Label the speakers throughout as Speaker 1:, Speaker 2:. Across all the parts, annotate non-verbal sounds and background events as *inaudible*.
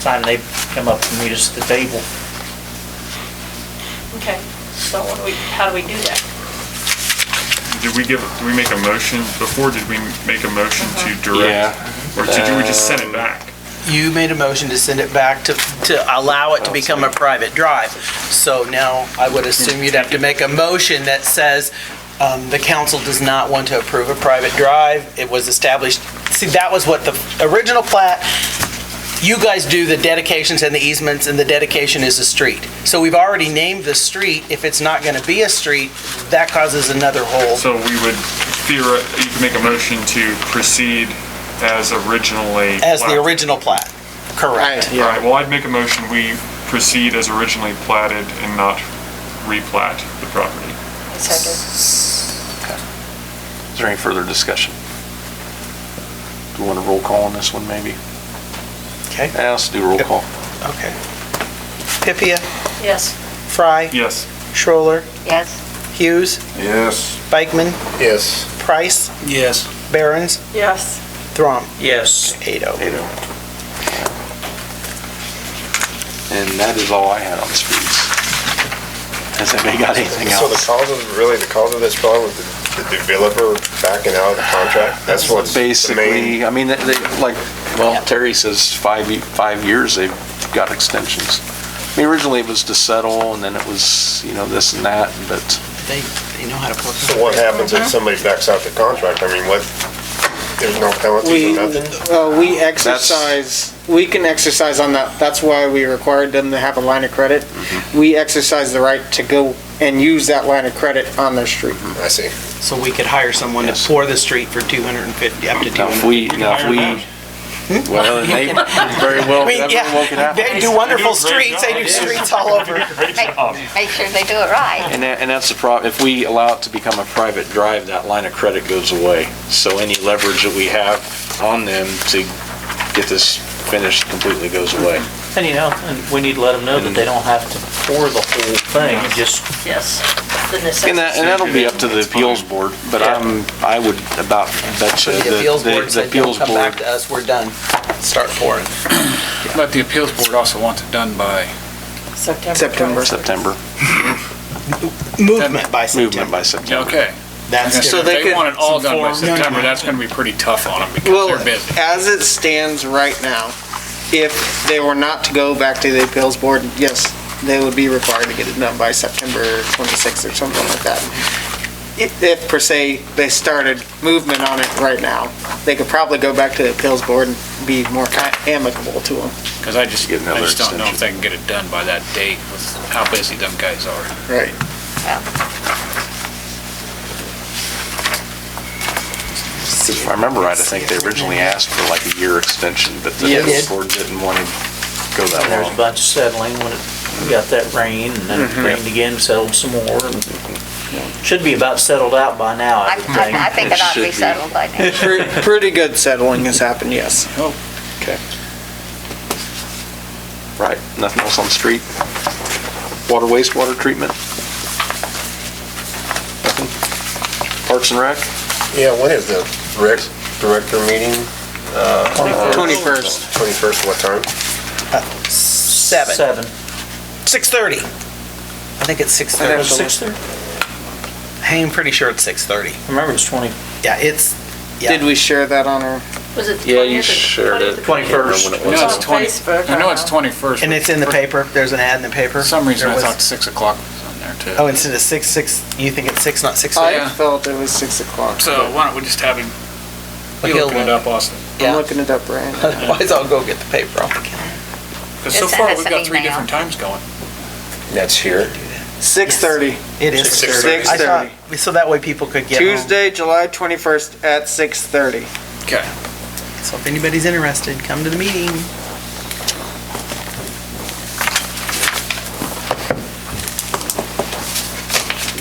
Speaker 1: time they come up and meet us at the table.
Speaker 2: Okay, so what do we, how do we do that?
Speaker 3: Did we give, did we make a motion before? Did we make a motion to
Speaker 4: Uh-huh.
Speaker 3: direct?
Speaker 5: Yeah.
Speaker 3: Or did we just send it back?
Speaker 4: You made a motion to send it back to, to allow it to become a private drive. So now I would assume you'd have to make a motion that says, um, the council does not want to approve a private drive. It was established, see, that was what the original plat, you guys do the dedications and the easements and the dedication is a street. So we've already named the street. If it's not gonna be a street, that causes another hole.
Speaker 3: So we would theoret, you could make a motion to proceed as originally.
Speaker 4: As the
Speaker 3: platted.
Speaker 4: original plat, correct.
Speaker 3: All right, well, I'd make a motion, we proceed as originally platted and not replat the property.
Speaker 2: Second.
Speaker 5: Is there any further discussion? Do we want a roll call on this one, maybe?
Speaker 4: Okay,
Speaker 5: Yeah, let's do a roll call.
Speaker 4: okay. Pipia,
Speaker 2: Yes.
Speaker 4: Fry,
Speaker 3: Yes.
Speaker 4: Schroller,
Speaker 6: Yes.
Speaker 4: Hughes,
Speaker 7: Yes.
Speaker 4: Bikeman,
Speaker 7: Yes.
Speaker 4: Price,
Speaker 1: Yes.
Speaker 4: Barons,
Speaker 2: Yes.
Speaker 4: Throm,
Speaker 1: Yes.
Speaker 4: eight oh.
Speaker 5: Eight oh. And that is all I had on streets. Has anybody got anything
Speaker 7: So the
Speaker 5: else?
Speaker 7: cause of, really, the cause of this problem was the the developer backing out of the contract? That's what's the main,
Speaker 5: Basically, I mean, they, they- like, well, Terry says five, ye- five years they've got extensions. I mean, originally it was to settle and then it was, you know, this and that, but
Speaker 4: They, they know how to plug.
Speaker 7: so what happens if somebody backs out the contract? I mean, what, there's no penalty
Speaker 8: We,
Speaker 7: or nothing?
Speaker 8: uh, we exercise, we can exercise on that, that's why we required them to have a line of credit. We exercise the right to go and use that line of credit on their street.
Speaker 7: I see.
Speaker 4: So we could hire someone to
Speaker 5: Yes.
Speaker 4: pour the street for two hundred and fifty, up to two
Speaker 5: now if
Speaker 4: hundred.
Speaker 5: we, now if we, well, and they *laughs* very well,
Speaker 4: I mean,
Speaker 5: everyone could
Speaker 4: yeah,
Speaker 5: happen.
Speaker 4: they do wonderful
Speaker 3: They do a great
Speaker 4: streets, they do
Speaker 3: job.
Speaker 4: streets all
Speaker 3: *laughs*
Speaker 4: over.
Speaker 3: Great
Speaker 6: Make
Speaker 3: job.
Speaker 6: make sure they do it right.
Speaker 5: And that, and that's the problem, if we allow it to become a private drive, that line of credit goes away. So any leverage that we have on them to get this finished completely goes away.
Speaker 1: And you know, and we need to let them know that they don't have to pour the whole thing, just
Speaker 2: Yes. The
Speaker 5: And that,
Speaker 2: necessity.
Speaker 5: and that'll be up to the appeals board, but I'm, I would about bet you.
Speaker 4: The appeals board
Speaker 5: the
Speaker 4: said, "Don't
Speaker 5: appeals
Speaker 4: come back
Speaker 5: board-
Speaker 4: to us, we're done, start pouring.
Speaker 9: But the appeals board also wants it done by,
Speaker 8: September.
Speaker 5: September,
Speaker 4: Movement
Speaker 5: movement
Speaker 4: by September,
Speaker 5: by September.
Speaker 9: okay.
Speaker 4: that's
Speaker 9: If
Speaker 8: So
Speaker 4: different.
Speaker 8: they
Speaker 9: they
Speaker 8: could-
Speaker 9: want it all done by
Speaker 4: Some form.
Speaker 9: September, that's gonna be pretty tough on them because
Speaker 8: Well,
Speaker 9: they're busy.
Speaker 8: as it stands right now, if they were not to go back to the appeals board, yes, they would be required to get it done by September 26th or something like that. If, if per se, they started movement on it right now, they could probably go back to the appeals board and be more ki- amicable to them,
Speaker 9: Because I just,
Speaker 5: Get
Speaker 9: I
Speaker 5: another
Speaker 9: just don't know
Speaker 5: extension.
Speaker 9: if they can get it done by that date with how busy them guys are.
Speaker 8: right?
Speaker 5: If I remember right, I think they originally asked for like a year extension, but the
Speaker 8: Yes.
Speaker 5: appeals board didn't want to go that
Speaker 1: There was
Speaker 5: long.
Speaker 1: a bunch of settling when it we got that rain, and then it rained again, settled some more. and Should be about settled out by now,
Speaker 6: I
Speaker 1: I would think.
Speaker 6: I- I think it ought to
Speaker 5: It
Speaker 6: be
Speaker 5: should be.
Speaker 6: settled by now.
Speaker 8: *laughs* Pre- Pretty good settling has happened, yes.
Speaker 5: Right, nothing else on the street? Water wastewater treatment? Nothing? Parks and Rec?
Speaker 7: Yeah, when is the rec director meeting?
Speaker 8: 21st,
Speaker 7: 21st, what time?
Speaker 4: Uh, Seven.
Speaker 1: Seven.
Speaker 4: 6:30. I think it's 6:30.
Speaker 1: Six thirty?
Speaker 4: I'm pretty sure it's 6:30.
Speaker 1: I Remember, it's twenty.
Speaker 4: Yeah, it's, yeah.
Speaker 8: did we share that on our?
Speaker 2: Was it the
Speaker 5: Yeah, you
Speaker 2: 20th?
Speaker 5: shared it.
Speaker 1: 21st.
Speaker 5: Can't remember
Speaker 9: I
Speaker 5: when it
Speaker 9: know
Speaker 5: was.
Speaker 9: it's 20
Speaker 2: Facebook,
Speaker 9: I know
Speaker 2: I
Speaker 9: it's
Speaker 2: know.
Speaker 9: 21st.
Speaker 4: And it's in the
Speaker 9: but
Speaker 4: paper, there's an ad in the paper?
Speaker 9: For some reason,
Speaker 4: There
Speaker 9: I
Speaker 4: was-
Speaker 9: thought 6 o'clock was on there too.
Speaker 4: Oh, instead of 6, 6, you think it's 6, not 6?
Speaker 8: I
Speaker 9: yeah.
Speaker 8: felt it was 6 o'clock.
Speaker 9: So why don't we just have him, you
Speaker 4: He'll
Speaker 9: looking it
Speaker 4: look.
Speaker 9: up, Austin?
Speaker 4: Yeah.
Speaker 8: I'm looking it up right now.
Speaker 4: Otherwise, I'll go get the paper off the counter.
Speaker 9: Because so
Speaker 6: Just
Speaker 9: far,
Speaker 6: send us
Speaker 9: we've got
Speaker 6: an
Speaker 9: three
Speaker 6: email.
Speaker 9: different times going.
Speaker 7: That's here.
Speaker 8: 6:30.
Speaker 4: It is
Speaker 7: 6:30.
Speaker 4: 6:30. I thought- So that way people could get home.
Speaker 8: Tuesday, July 21st at 6:30.
Speaker 9: Okay.
Speaker 4: So if anybody's interested, come to the meeting.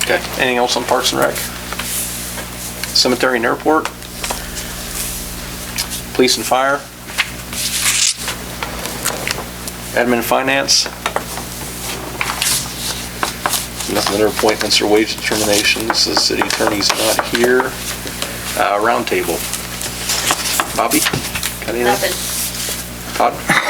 Speaker 5: Okay, anything else on Parks and Rec? Cemetery and Airport? Police and Fire? Admin and Finance? Nothing under appointments or wage determinations, the city attorney's not here. Uh, roundtable. Bobby? Got anything?
Speaker 2: Nothing.
Speaker 5: Todd?